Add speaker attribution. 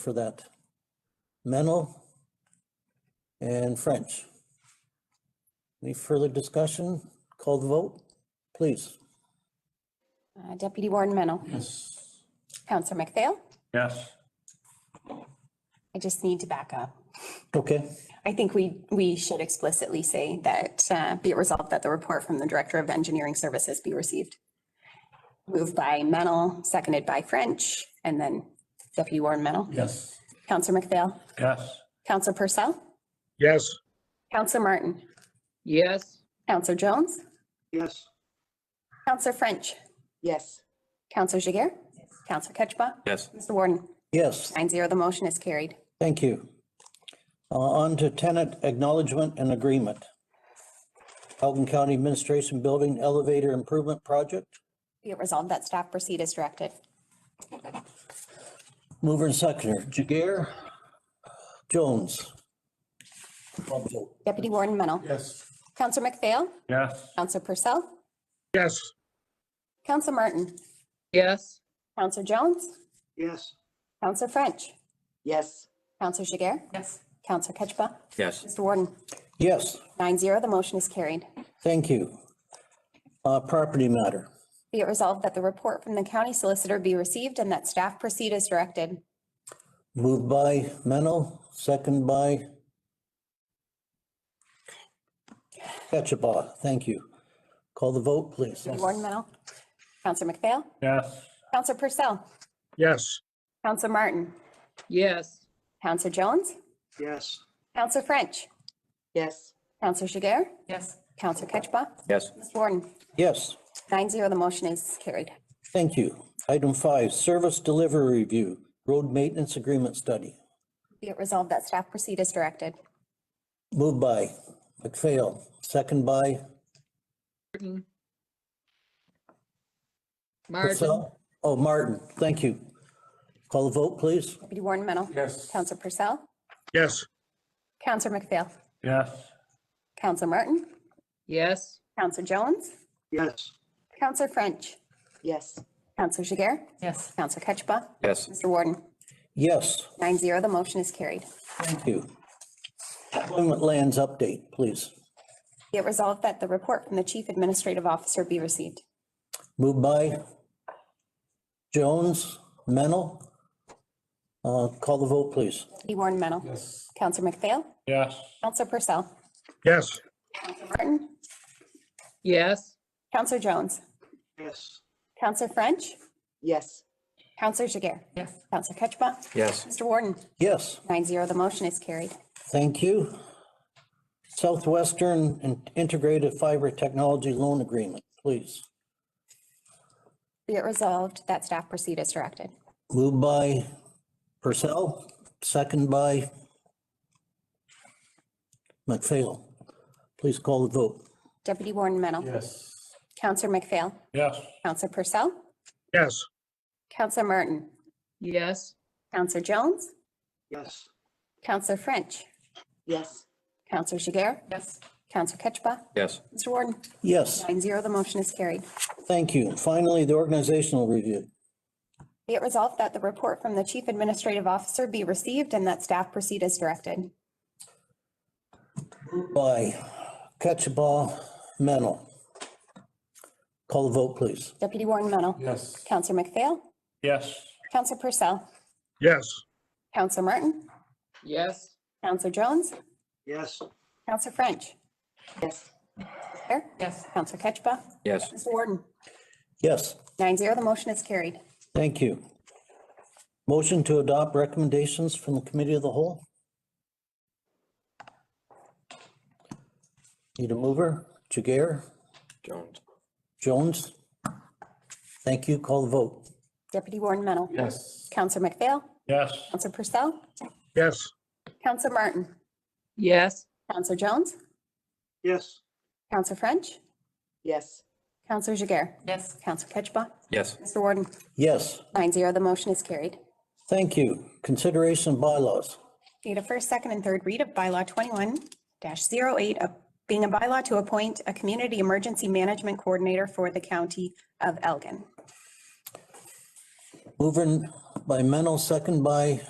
Speaker 1: for that. Mennel and French. Any further discussion? Call the vote, please.
Speaker 2: Uh, Deputy Warden Mennel.
Speaker 3: Yes.
Speaker 2: Counselor McPhail.
Speaker 3: Yes.
Speaker 2: I just need to back up.
Speaker 1: Okay,
Speaker 2: I think we, we should explicitly say that, uh, be it resolved that the report from the Director of Engineering Services be received. Moved by Mennel, seconded by French, and then Deputy Warden Mennel.
Speaker 3: Yes.
Speaker 2: Counselor McPhail.
Speaker 3: Yes.
Speaker 2: Counselor Purcell.
Speaker 4: Yes.
Speaker 2: Counselor Martin.
Speaker 5: Yes.
Speaker 2: Counselor Jones.
Speaker 4: Yes.
Speaker 2: Counselor French.
Speaker 5: Yes.
Speaker 2: Counselor Jager. Counselor Ketchba.
Speaker 3: Yes.
Speaker 2: Mr. Warden,
Speaker 1: yes,
Speaker 2: nine zero, the motion is carried.
Speaker 1: thank you. Uh, On to tenant acknowledgement and agreement. Elgin County Administration Building Elevator Improvement Project.
Speaker 2: Be it resolved that staff proceed as directed.
Speaker 1: Mover and seconder, Jagger, Jones. Call the vote.
Speaker 2: Deputy Warden Mennel.
Speaker 3: Yes.
Speaker 2: Counselor McPhail.
Speaker 3: Yes.
Speaker 2: Counselor Purcell.
Speaker 4: Yes.
Speaker 2: Counselor Martin.
Speaker 5: Yes.
Speaker 2: Counselor Jones.
Speaker 4: Yes.
Speaker 2: Counselor French.
Speaker 5: Yes.
Speaker 2: Counselor Jiguer. Yes. Counselor Ketchba.
Speaker 3: Yes.
Speaker 2: Mr. Warden,
Speaker 1: Yes,
Speaker 2: nine zero, the motion is carried.
Speaker 1: thank you. Uh, Property matter.
Speaker 2: Be it resolved that the report from the county solicitor be received and that staff proceed as directed.
Speaker 1: Moved by Mennel, second by Ketchabah. Thank you. Call the vote, please.
Speaker 2: Deputy Warden Mennel. Counselor McPhail.
Speaker 3: Yes.
Speaker 2: Counselor Purcell.
Speaker 4: Yes.
Speaker 2: Counselor Martin.
Speaker 5: Yes.
Speaker 2: Counselor Jones.
Speaker 4: Yes.
Speaker 2: Counselor French.
Speaker 5: Yes.
Speaker 2: Counselor Jiguer.
Speaker 5: Yes.
Speaker 2: Counselor Ketchba.
Speaker 3: Yes.
Speaker 2: Mr. Warden,
Speaker 1: Yes,
Speaker 2: nine zero, the motion is carried.
Speaker 1: thank you. Item five, service delivery review, road maintenance agreement study.
Speaker 2: Be it resolved that staff proceed as directed.
Speaker 1: Moved by McPhail, second by
Speaker 5: Martin. Martin.
Speaker 1: Purcell. Oh, Martin, thank you. Call the vote, please.
Speaker 2: Deputy Warden Mennel.
Speaker 3: Yes.
Speaker 2: Counselor Purcell.
Speaker 4: Yes.
Speaker 2: Counselor McPhail.
Speaker 3: Yes.
Speaker 2: Counselor Martin.
Speaker 5: Yes.
Speaker 2: Counselor Jones.
Speaker 4: Yes.
Speaker 2: Counselor French.
Speaker 5: Yes.
Speaker 2: Counselor Jiguer.
Speaker 5: Yes.
Speaker 2: Counselor Ketchba.
Speaker 3: Yes.
Speaker 2: Mr. Warden,
Speaker 1: Yes,
Speaker 2: nine zero, the motion is carried.
Speaker 1: thank you. Employment lands update, please.
Speaker 2: Be it resolved that the report from the Chief Administrative Officer be received.
Speaker 1: Moved by Jones, Mennel. Uh, Call the vote, please.
Speaker 2: Deputy Warden Mennel.
Speaker 3: Yes.
Speaker 2: Counselor McPhail.
Speaker 3: Yes.
Speaker 2: Counselor Purcell.
Speaker 4: Yes.
Speaker 2: Counselor Martin.
Speaker 5: Yes.
Speaker 2: Counselor Jones.
Speaker 4: Yes.
Speaker 2: Counselor French.
Speaker 5: Yes.
Speaker 2: Counselor Jiguer. Yes. Counselor Ketchba.
Speaker 3: Yes.
Speaker 2: Mr. Warden,
Speaker 1: Yes,
Speaker 2: nine zero, the motion is carried.
Speaker 1: thank you. Southwestern and Integrated Fiber Technology Loan Agreement, please.
Speaker 2: Be it resolved that staff proceed as directed.
Speaker 1: Moved by Purcell, second by McPhail. Please call the vote.
Speaker 2: Deputy Warden Mennel.
Speaker 3: Yes.
Speaker 2: Counselor McPhail.
Speaker 3: Yes.
Speaker 2: Counselor Purcell.
Speaker 4: Yes.
Speaker 2: Counselor Martin.
Speaker 5: Yes.
Speaker 2: Counselor Jones.
Speaker 4: Yes.
Speaker 2: Counselor French.
Speaker 5: Yes.
Speaker 2: Counselor Jiguer. Yes. Counselor Ketchba.
Speaker 3: Yes.
Speaker 2: Mr. Warden,
Speaker 1: Yes,
Speaker 2: nine zero, the motion is carried.
Speaker 1: thank you. Finally, the organizational review.
Speaker 2: Be it resolved that the report from the Chief Administrative Officer be received and that staff proceed as directed.
Speaker 1: by Ketchabah Mennel. Call the vote, please.
Speaker 2: Deputy Warden Mennel.
Speaker 3: Yes.
Speaker 2: Counselor McPhail.
Speaker 3: Yes.
Speaker 2: Counselor Purcell.
Speaker 4: Yes.
Speaker 2: Counselor Martin.
Speaker 5: Yes.
Speaker 2: Counselor Jones.
Speaker 4: Yes.
Speaker 2: Counselor French.
Speaker 5: Yes.
Speaker 2: Jiguer. Yes. Counselor Ketchba.
Speaker 3: Yes.
Speaker 2: Mr. Warden,
Speaker 1: Yes,
Speaker 2: nine zero, the motion is carried.
Speaker 1: thank you. Motion to adopt recommendations from the committee of the whole? Need a mover? Jagger?
Speaker 3: Jones.
Speaker 1: Jones? Thank you. Call the vote.
Speaker 2: Deputy Warden Mennel.
Speaker 3: Yes.
Speaker 2: Counselor McPhail.
Speaker 3: Yes.
Speaker 2: Counselor Purcell.
Speaker 4: Yes.
Speaker 2: Counselor Martin.
Speaker 5: Yes.
Speaker 2: Counselor Jones.
Speaker 4: Yes.
Speaker 2: Counselor French.
Speaker 5: Yes.
Speaker 2: Counselor Jiguer. Yes. Counselor Ketchba.
Speaker 3: Yes.
Speaker 2: Mr. Warden,
Speaker 1: Yes,
Speaker 2: nine zero, the motion is carried.
Speaker 1: thank you. Consideration of bylaws.
Speaker 2: Need a first, second, and third read of bylaw twenty-one 8 of being a bylaw to appoint a community emergency management coordinator for the county of Elgin.
Speaker 1: Mover by Mennel, second by